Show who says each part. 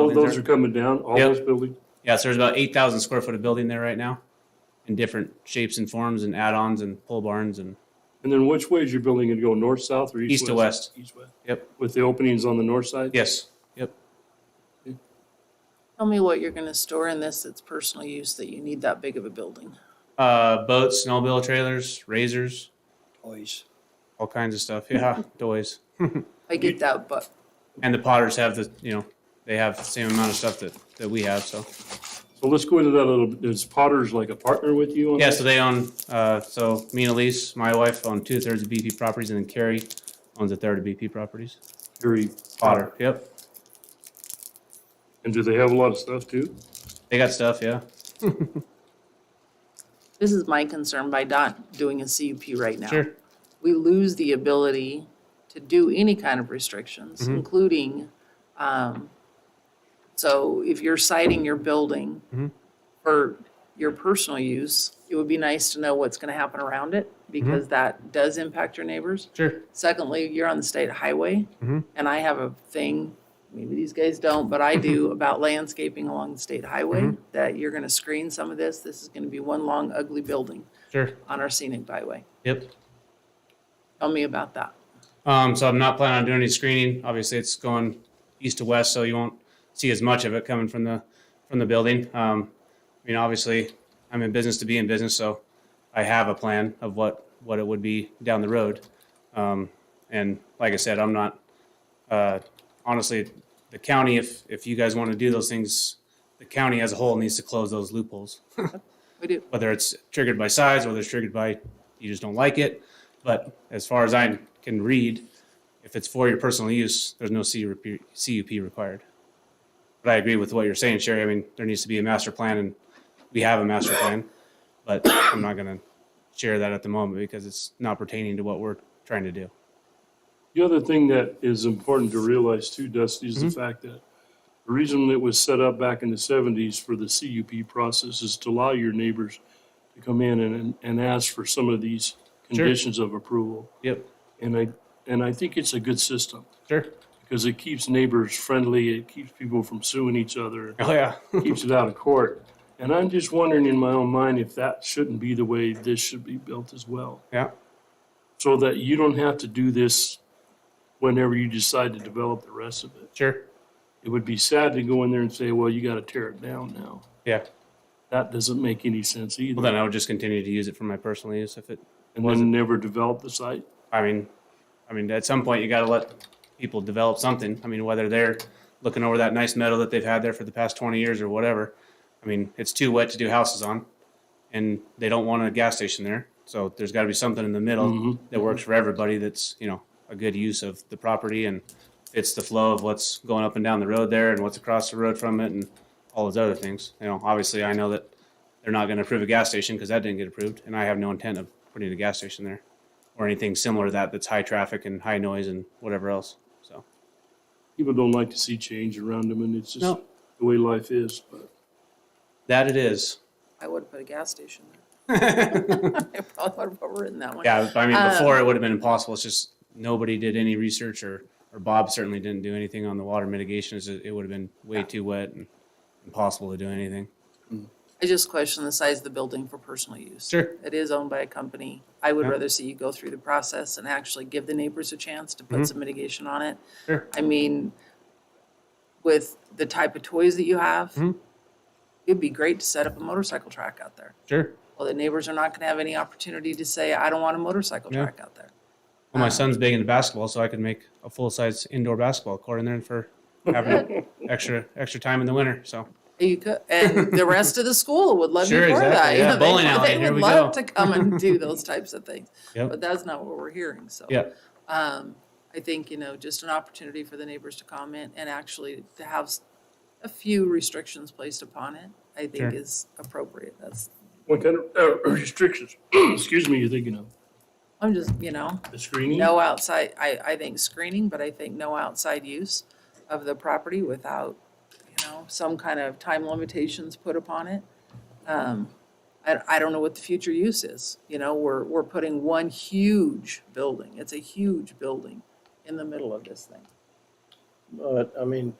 Speaker 1: of those are coming down, all
Speaker 2: Yep.
Speaker 1: those buildings?
Speaker 2: Yeah, so there's about 8,000 square foot of building there right now in different shapes and forms and add-ons and pole barns and,
Speaker 1: And then which way is your building going to go, north, south, or east?
Speaker 2: East to west.
Speaker 1: East, west.
Speaker 2: Yep.
Speaker 1: With the openings on the north side?
Speaker 2: yes, yep.
Speaker 3: Tell me what you're gonna store in this that's personal use that you need that big of a building.
Speaker 2: Uh, boats, snowmobile trailers, razors,
Speaker 4: Toys.
Speaker 2: all kinds of stuff. Yeah, toys.
Speaker 3: I get that, but
Speaker 2: And the Potters have the, you know, they have the same amount of stuff that, that we have, so.
Speaker 1: So let's go into that a little, bit. is Potter's like a partner with you on
Speaker 2: Yeah,
Speaker 1: that?
Speaker 2: so they own, uh, so me and Elise, my wife, own two thirds of BP properties and then Carrie owns a third of BP properties.
Speaker 1: Gary
Speaker 2: Potter, yep.
Speaker 1: And do they have a lot of stuff too?
Speaker 2: They got stuff, yeah.
Speaker 3: this is my concern by not doing a CUP right now.
Speaker 2: Sure.
Speaker 3: We lose the ability to do any kind of restrictions, including, um, so if you're citing your building for your personal use, it would be nice to know what's gonna happen around it because that does impact your neighbors.
Speaker 2: Sure.
Speaker 3: Secondly, you're on the state highway,
Speaker 2: Mhm.
Speaker 3: and I have a thing, maybe these guys don't, but I do, about landscaping along the state highway, that you're gonna screen some of this, this is gonna be one long ugly building
Speaker 2: Sure.
Speaker 3: on our scenic byway.
Speaker 2: Yep.
Speaker 3: Tell me about that.
Speaker 2: Um, so I'm not planning on doing any screening. Obviously, it's going east to west, so you won't see as much of it coming from the from the building. Um, I mean, obviously, I'm in business to be in business, so I have a plan of what what it would be down the road. Um, and like I said, I'm not uh, honestly the county. If if you guys want to do those things, the county as a whole needs to close those loopholes
Speaker 3: We do,
Speaker 2: whether it's triggered by size, whether it's triggered by you just don't like it. But as far as I can read, if it's for your personal use, there's no CUP CUP required. But I agree with what you're saying, Sherry. I mean, there needs to be a master plan and we have a master plan, but I'm not going to share that at the moment because it's not pertaining to what we're trying to do.
Speaker 1: The other thing that is important to realize too, Dusty, is the
Speaker 2: Mm-hmm.
Speaker 1: fact that the reason it was set up back in the seventies for the CUP process is to allow your neighbors to come in and, and ask for some of these conditions of approval.
Speaker 2: Yep.
Speaker 1: And I, and I think it's a good system
Speaker 2: Sure.
Speaker 1: because it keeps neighbors friendly. It keeps people from suing each other,
Speaker 2: Oh, yeah.
Speaker 1: keeps it out of court. And I'm just wondering in my own mind if that shouldn't be the way this should be built as well
Speaker 2: yeah.
Speaker 1: so that you don't have to do this whenever you decide to develop the rest of it.
Speaker 2: Sure.
Speaker 1: It would be sad to go in there and say, well, you got to tear it down now.
Speaker 2: Yeah.
Speaker 1: That doesn't make any sense either.
Speaker 2: Well, then I would just continue to use it for my personal use if it
Speaker 1: and then never develop the site.
Speaker 2: I mean, I mean, at some point you got to let people develop something. I mean, whether they're looking over that nice meadow that they've had there for the past 20 years or whatever. I mean, it's too wet to do houses on and they don't want a gas station there. So there's got to be something in the middle that works for everybody. That's, you know, a good use of the property and fits the flow of what's going up and down the road there and what's across the road from it and all those other things. You know, obviously I know that they're not going to approve a gas station because that didn't get approved and I have no intent of putting a gas station there or anything similar to that that's high traffic and high noise and whatever else. So
Speaker 1: People don't like to see change around them, and it's just
Speaker 2: No.
Speaker 1: the way life is. But
Speaker 2: that it is.
Speaker 3: I would put a gas station there. I probably would have overwritten that one.
Speaker 2: Yeah, I mean, before it would have been impossible. It's just nobody did any research, or or Bob certainly didn't do anything on the water mitigation. It's just- It would have been way too wet and impossible to do anything.
Speaker 3: I just question the size of the building for personal use.
Speaker 2: Sure.
Speaker 3: It is owned by a company. I would
Speaker 2: Yeah.
Speaker 3: rather see you go through the process and actually give the neighbors a chance to put some mitigation on it.
Speaker 2: Mm-hmm. Sure.
Speaker 3: I mean, with the type of toys that you have,
Speaker 2: Mm-hmm.
Speaker 3: it'd be great to set up a motorcycle track out there.
Speaker 2: Sure.
Speaker 3: Well, the neighbors are not gonna have any opportunity to say, I don't want a motorcycle
Speaker 2: Yeah.
Speaker 3: track out there.
Speaker 2: Well, my son's big into basketball, so I could make a full size indoor basketball court in there for having extra extra time in the winter. So
Speaker 3: You could, and the rest of the school would love you
Speaker 2: Sure,
Speaker 3: for that.
Speaker 2: exactly,
Speaker 3: you
Speaker 2: yeah,
Speaker 3: know, they-
Speaker 2: bowling alley,
Speaker 3: They
Speaker 2: here
Speaker 3: would
Speaker 2: we
Speaker 3: love
Speaker 2: go.
Speaker 3: to come and do those types of things,
Speaker 2: Yep.
Speaker 3: but that's not what we're hearing, so.
Speaker 2: yeah,
Speaker 3: Um, I think, you know, just an opportunity for the neighbors to comment and actually to have s- a few restrictions placed upon it, I
Speaker 2: Sure.
Speaker 3: think is appropriate. That's,
Speaker 1: what kind of uh, restrictions, excuse me, you're thinking of?
Speaker 3: I'm just, you know,
Speaker 1: The screening?
Speaker 3: no outside, I, I think screening, but I think no outside use of the property without, you know, some kind of time limitations put upon it. Um, I, I don't know what the future use is, you know, we're, we're putting one huge building, it's a huge building in the middle of this thing.
Speaker 4: But, I mean,